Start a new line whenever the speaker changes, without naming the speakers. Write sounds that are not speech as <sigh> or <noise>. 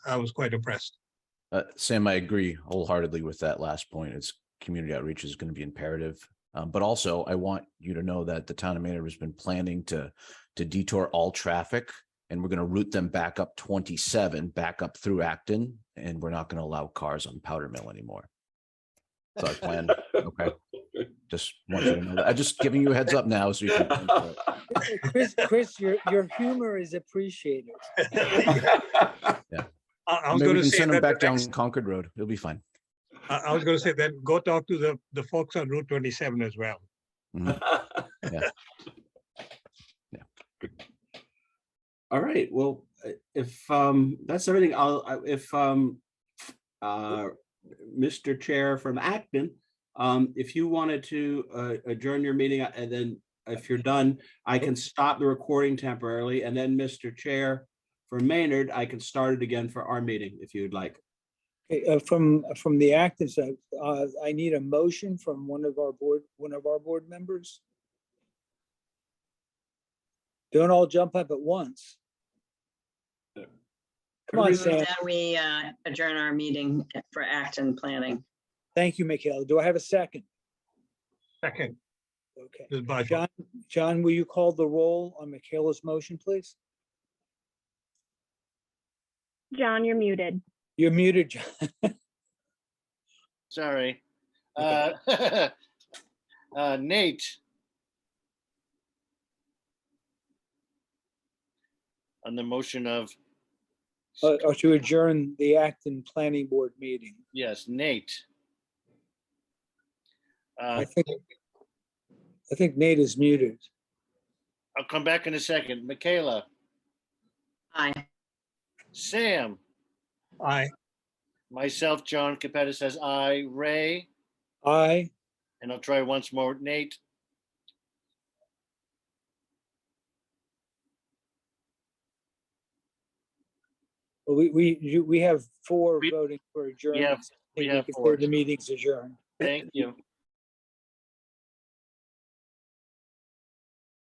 I was quite impressed.
Uh, Sam, I agree wholeheartedly with that last point. It's community outreach is going to be imperative. Um, but also I want you to know that the town of Maynard has been planning to, to detour all traffic. And we're going to route them back up twenty-seven, back up through Acton, and we're not going to allow cars on Powder Mill anymore. That's our plan. Okay.
<laughs>
Just want you to know that. I'm just giving you a heads up now so you
<laughs>
can. plan for it.
Chris, Chris, your, your humor is appreciated.
I, I was
Maybe we
gonna
can
say
Send them
that,
back
the
down
next-
Concord Road. It'll be fine.
I, I was gonna say that, go talk to the, the folks on Route twenty-seven as well.
All right, well, i- if um, that's everything, I'll, I- if um, uh, Mr. Chair from Acton, um, if you wanted to uh, adjourn your meeting uh, and then if you're done, I can stop the recording temporarily and then Mr. Chair from Maynard, I can start it again for our meeting if you'd like.
Okay, uh, From, from the active side, uh, I need a motion from one of our board, one of our board members. Don't all jump up at once. Come on,
Everybody-
Sam.
Then we uh, adjourn our meeting for Acton Planning.
Thank you, Michaela. Do I have a second?
Second,
Okay.
Ms. Bajaj.
John, John, will you call the roll on Michaela's motion, please?
John, you're muted.
You're muted, John.
Sorry. Uh, <laughs> uh, Nate. On the motion of,
<laughs> Uh, Or to adjourn the Acton Planning Board meeting.
yes, Nate. Uh,
I think, I think Nate is muted.
I'll come back in a second. Michaela,
Aye.
Sam,
Aye.
myself, John Capetta says aye, Ray,
Aye.
and I'll try once more, Nate.
Well, We, we, you- we have four
We-
voting for adjournment.
have-
I think
have
can say
four.
The meeting's adjourned.
Thank you.